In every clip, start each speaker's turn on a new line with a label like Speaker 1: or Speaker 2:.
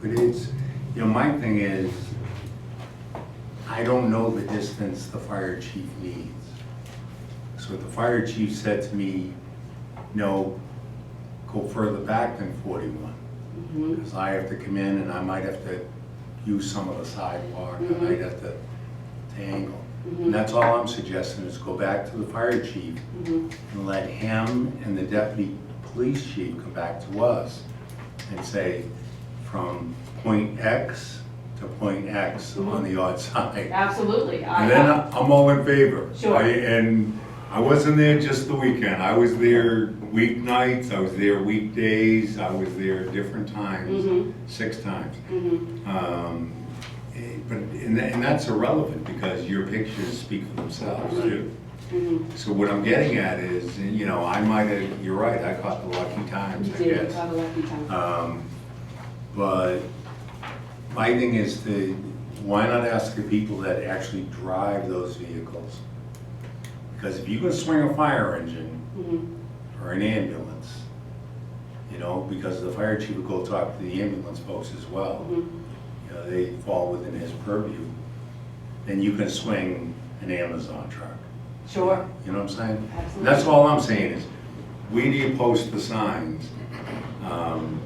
Speaker 1: But it's, you know, my thing is, I don't know the distance the fire chief needs. So if the fire chief said to me, no, go further back than forty-one. Because I have to come in and I might have to use some of the sidewalk, I might have to to angle. And that's all I'm suggesting is go back to the fire chief and let him and the deputy police chief come back to us and say, from point X to point X on the odd side.
Speaker 2: Absolutely. I-
Speaker 1: And then I'm all in favor.
Speaker 2: Sure.
Speaker 1: I- And I wasn't there just the weekend, I was there weeknights, I was there weekdays, I was there different
Speaker 2: Mhm.
Speaker 1: times, six times.
Speaker 2: Mhm.
Speaker 1: Um, eh, But, and that- and that's irrelevant, because your pictures speak for themselves, too.
Speaker 2: Mhm.
Speaker 1: So what I'm getting at is, and, you know, I might have, you're right, I caught the lucky times,
Speaker 2: You
Speaker 1: I
Speaker 2: did,
Speaker 1: guess.
Speaker 2: have a lucky time.
Speaker 1: Um, But my thing is to, why not ask the people that actually drive those vehicles? Because if you can swing a fire engine
Speaker 2: Mhm.
Speaker 1: or an ambulance, you know, because the fire chief would go talk to the ambulance folks as well
Speaker 2: Mhm.
Speaker 1: you know, they fall within his purview, then you can swing an Amazon truck.
Speaker 2: Sure,
Speaker 1: You know what I'm saying?
Speaker 2: absolutely.
Speaker 1: That's all I'm saying is, we need to post the signs um,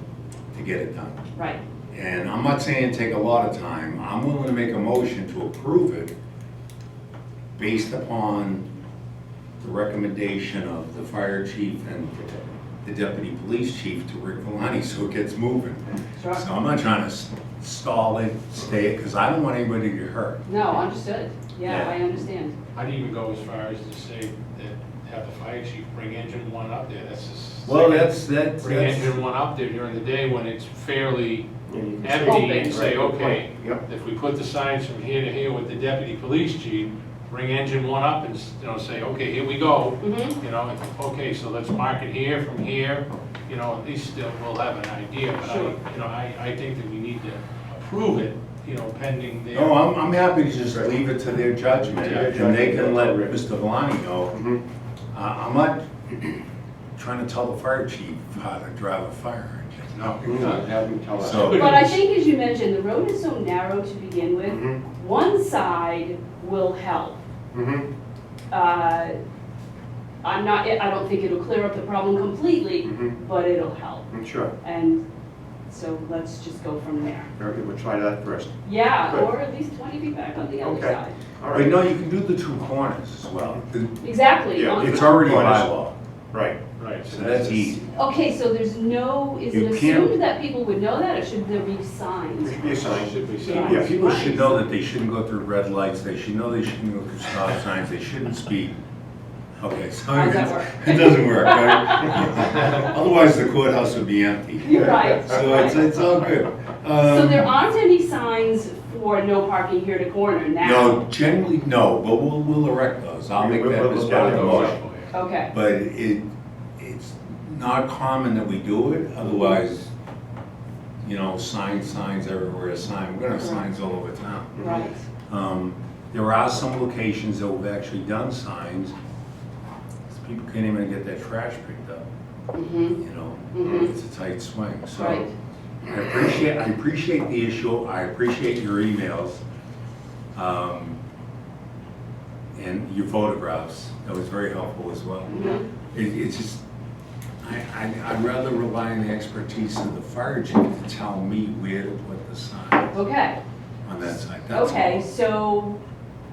Speaker 1: to get it done.
Speaker 2: Right.
Speaker 1: And I'm not saying take a lot of time, I'm willing to make a motion to approve it based upon the recommendation of the fire chief and the deputy police chief to Rick Valani, so it gets moving.
Speaker 2: Sure.
Speaker 1: So I'm not trying to s- stall it, stay it, because I don't want anybody to get hurt.
Speaker 2: No, understood. Yeah,
Speaker 1: Yeah.
Speaker 2: I understand.
Speaker 3: I'd even go as far as to say that have the fire chief bring engine one up there, that's just.
Speaker 1: that's,
Speaker 3: Bring engine one up there during the day when it's fairly
Speaker 2: Open.
Speaker 3: empty and say,
Speaker 4: Right, good
Speaker 3: okay,
Speaker 4: point. Yep.
Speaker 3: if we put the signs from here to here with the deputy police chief, bring engine one up and, s- you know, say, okay, here we go.
Speaker 2: Mhm.
Speaker 3: You know, and, okay, so let's mark it here from here, you know, at least still we'll have an idea. But I,
Speaker 2: Sure.
Speaker 3: you know, I, I think that we need to approve it, you know, pending their.
Speaker 1: No, I'm, I'm happy to just leave it to their judgment,
Speaker 3: To their
Speaker 1: and they can let
Speaker 4: judgment.
Speaker 1: Mr. Valani know.
Speaker 4: Mhm.
Speaker 1: I- Uh, I'm not trying to tell the fire chief how to drive a fire engine, no.
Speaker 4: No, have them tell us.
Speaker 1: So-
Speaker 2: But I think, as you mentioned, the road is so narrow to begin with.
Speaker 4: Mhm,
Speaker 2: One side will help.
Speaker 4: mhm,
Speaker 2: Uh, I'm not, I don't think it'll clear up the problem completely,
Speaker 4: mhm,
Speaker 2: but it'll help.
Speaker 4: mhm, Sure,
Speaker 2: And so let's just go from there.
Speaker 4: very good, we'll try that first.
Speaker 2: Yeah,
Speaker 4: Good.
Speaker 2: or at least 20 feet back on the other
Speaker 4: Okay.
Speaker 2: side.
Speaker 4: All
Speaker 1: But
Speaker 4: right,
Speaker 1: no, you can do the two corners as well.
Speaker 2: Exactly.
Speaker 4: Yeah,
Speaker 2: on-
Speaker 1: It's already by
Speaker 4: Corners.
Speaker 1: law,
Speaker 4: right.
Speaker 3: Right.
Speaker 1: so that's easy.
Speaker 2: Okay, so there's no, is it
Speaker 1: You can't-
Speaker 2: assumed that people would know that, or should there be signs?
Speaker 4: There should be a sign.
Speaker 3: Should be
Speaker 2: Yeah.
Speaker 3: signed.
Speaker 1: Yeah, people should know that they shouldn't go through red lights, they should know they shouldn't go through stop signs, they shouldn't speed. Okay, so
Speaker 2: How does that
Speaker 1: it's-
Speaker 2: work?
Speaker 1: it doesn't work, right? Otherwise, the courthouse would be empty.
Speaker 2: You're right.
Speaker 1: So it's, it's all good.
Speaker 2: So there
Speaker 1: Um,
Speaker 2: aren't any signs for no parking here to corner now?
Speaker 1: No, generally, no, but we'll, we'll erect those, I'll make
Speaker 4: We'll-
Speaker 1: that
Speaker 4: we'll
Speaker 1: as
Speaker 4: look
Speaker 1: part
Speaker 4: at
Speaker 1: of the
Speaker 4: those.
Speaker 1: motion.
Speaker 2: Okay,
Speaker 1: But it, it's not common that we do it, otherwise, you know, signs, signs everywhere, sign, we're gonna have signs all over town.
Speaker 2: right.
Speaker 1: Um, There are some locations that we've actually done signs, 'cause people can't even get their trash picked up,
Speaker 2: Mm-hmm,
Speaker 1: you know?
Speaker 2: Mhm.
Speaker 1: It's a tight swing, so.
Speaker 2: right.
Speaker 1: I appreciate, I appreciate the issue, I appreciate your emails, um, and your photographs, that was very helpful as well.
Speaker 2: Mhm.
Speaker 1: It, it's just, I, I, I'd rather rely on the expertise of the fire chief to tell me where to put the sign
Speaker 2: Okay,
Speaker 1: on that side, that's all.
Speaker 2: okay, so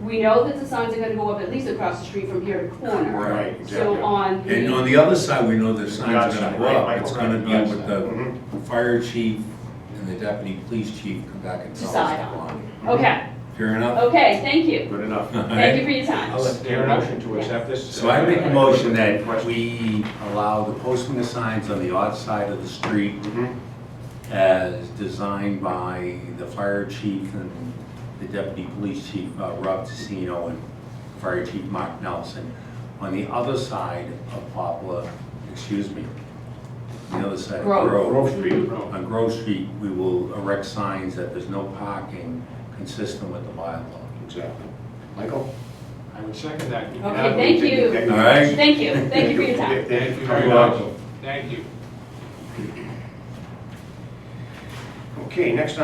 Speaker 2: we know that the signs are gonna go up at least across the street from here to corner.
Speaker 1: Right,
Speaker 2: So on
Speaker 1: And on
Speaker 2: the,
Speaker 1: the other side, we know the signs are gonna
Speaker 4: Gotcha,
Speaker 1: go
Speaker 4: right,
Speaker 1: up,
Speaker 4: Michael,
Speaker 1: it's gonna
Speaker 4: right,
Speaker 1: be with
Speaker 4: Mhm.
Speaker 1: the fire chief and the deputy police chief come back and tell us.
Speaker 2: Decide
Speaker 1: the
Speaker 2: on.
Speaker 1: line.
Speaker 2: okay,
Speaker 1: Fair enough?
Speaker 2: okay, thank you.
Speaker 4: Mm-hmm. Good enough.
Speaker 2: Thank you for your time.
Speaker 1: I'll let-
Speaker 3: Fair enough.
Speaker 4: Motion to accept this?
Speaker 1: So I make a motion that we allow the posting of signs on the odd side of the street
Speaker 4: Mhm,
Speaker 1: as designed by the fire chief and the deputy police chief, uh, Rob Tissino, and fire chief Mark Nelson, on the other side of Poplar, excuse me, the other side of
Speaker 2: Grove.
Speaker 1: Grove.
Speaker 4: Street.
Speaker 1: On Grove Street, we will erect signs that there's no parking consistent with the bylaw.
Speaker 4: Exactly. Michael?
Speaker 3: I would second that.
Speaker 2: Okay, thank you.
Speaker 1: All right?
Speaker 2: Thank you, thank you for your time.
Speaker 3: Thank you very much. Thank you.
Speaker 4: Okay, next on